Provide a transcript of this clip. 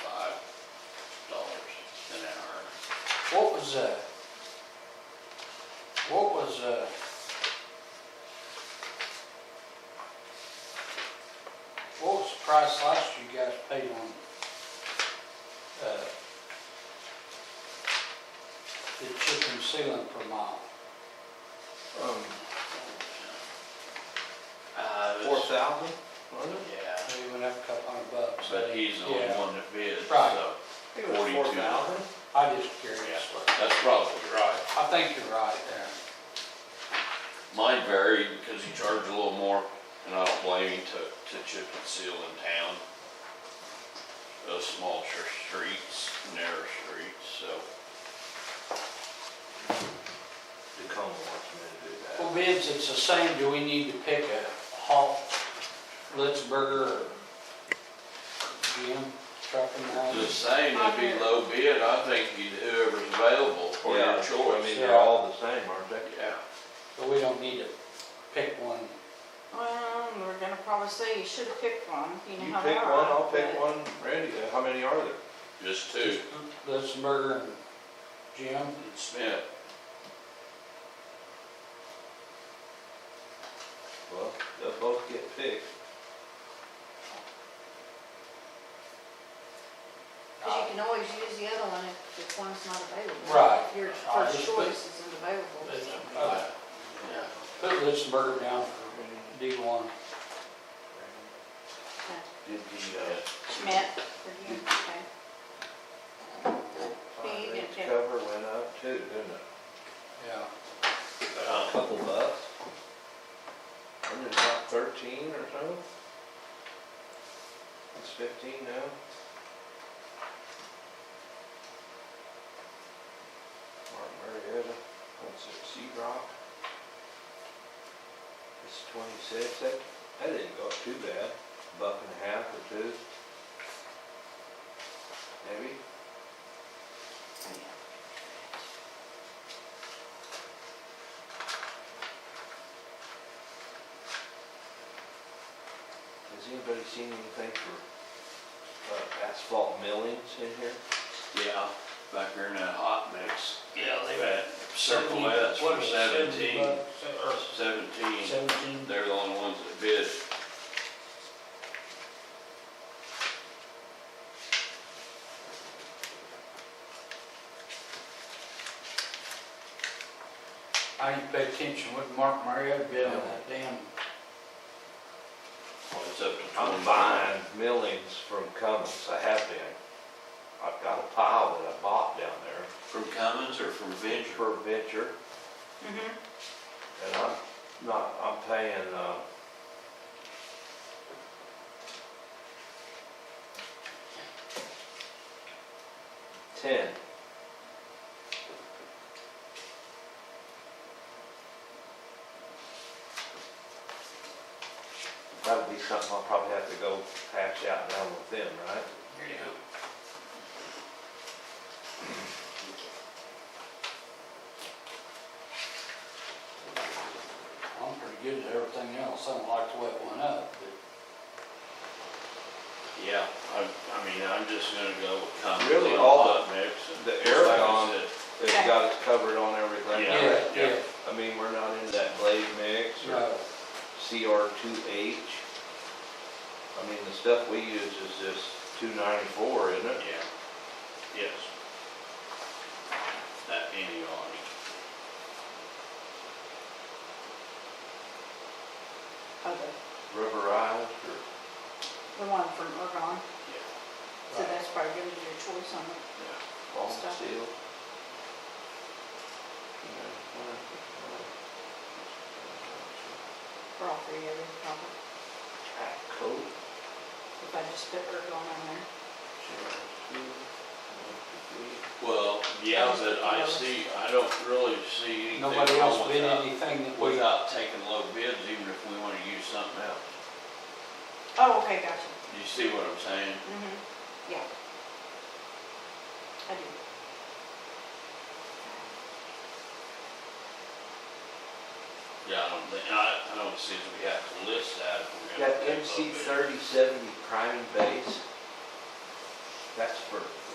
What was, uh, what was, uh, what was the price last you guys paid on, uh, the chicken ceiling per mile? Um, Uh, it four was- thousand, Yeah, They went up a couple hundred bucks. but he's the only Yeah. one that bids, Right. so I think it was 42. four thousand. I just curious. that's probably right. I think you're right there. Mine varied because he charged a little more, and I don't blame him to, to chip and seal in town. Those smaller streets, narrow streets, so. Tacoma wants me to do that. Well, bids, it's the same, do we need to pick a hot Litzberger or GM truck in the The house? same would be low bid, I think you'd- whoever's available for Yeah, your I choice. mean, they're all the same, aren't they? Yeah, But we don't need to pick one. Well, we're gonna probably say you should have picked one, you You know how they pick are. one, I'll pick but- one, Randy, uh, how many are there? just two, Litzberger and GM. and Smith, Well, they'll both get picked. Cause you can always use the other one if, if one's not available. Right. Your I first just put- choice isn't available. Uh, yeah. Put Litzberger down for D one. Did the, Yeah. Schmidt, for you, okay. fire you rate's did. cover went up too, didn't it? Yeah. Uh, A couple bucks. Wasn't it about thirteen or so? It's fifteen now. Martin Marietta, what's it, Sea Rock? It's twenty-six, that, that didn't go up too bad, buck and a half or two. Maybe, has anybody seen anything for uh, asphalt millings in here? Yeah, back there in that hot mix. Yeah, they- had Circle S What for is it, seventeen, bucks? Or seventeen, Seventeen. they're the only ones that bid. I didn't pay attention what Mark Marietta bid on that damn. Well, it's up to I'm twenty-five. buying millings from Cummins, I have been. I've got a pile that I bought down there From Cummins or from Venture? for Venture, Mhm. and I'm not, I'm paying, uh, ten. That'll be something I'll probably have to go hash out down with them, right? Yeah. I'm pretty good at everything else. I don't like the way it went up, but. Yeah, I, I mean, I'm just gonna go with Cummins. Really, on all hot Mix. and- the like I Aragon- said, They've got us covered on everything. Yeah. yeah. I mean, we're not into that blade mix or No, CR two H. I mean, the stuff we use is this two ninety-four, isn't it? Yeah, yes. That any on it. Oh, Rubberized or, the, the one from Ergon, yeah, so Right. that's probably gonna be your choice on it. yeah. long Stuff. steel. for all three of you, probably. Tack coat. If I just put Ergon on there. CR2, one, Well, yeah, but I see, I don't really see anything wrong nobody else bid without- anything that we, without taking low bids, even if we wanna use something else. Oh, okay, gotcha. You see what I'm saying? Mhm, yeah. I do. Yeah, I don't think, I, I don't see that we have to list that if two. we're gonna. Got take low MC bids. thirty seventy priming base. That's for